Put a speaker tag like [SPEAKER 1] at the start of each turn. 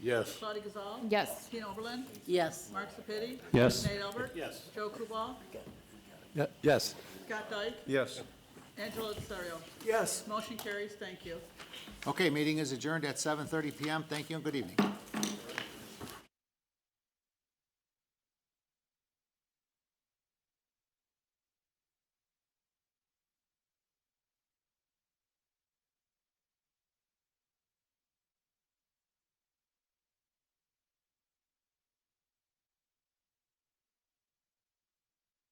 [SPEAKER 1] Yes.
[SPEAKER 2] Claudia Gazal.
[SPEAKER 3] Yes.
[SPEAKER 2] Tina Oberlin.
[SPEAKER 4] Yes.
[SPEAKER 2] Mark Sepiti.
[SPEAKER 5] Yes.
[SPEAKER 2] Nate Albert.
[SPEAKER 1] Yes.
[SPEAKER 2] Joe Kubal.
[SPEAKER 5] Ye- Yes.
[SPEAKER 2] Scott Dyke.
[SPEAKER 5] Yes.
[SPEAKER 2] Angela Desario.
[SPEAKER 6] Yes.
[SPEAKER 2] Motion carries. Thank you.
[SPEAKER 7] Okay, meeting is adjourned at 7:30 PM. Thank you and good evening.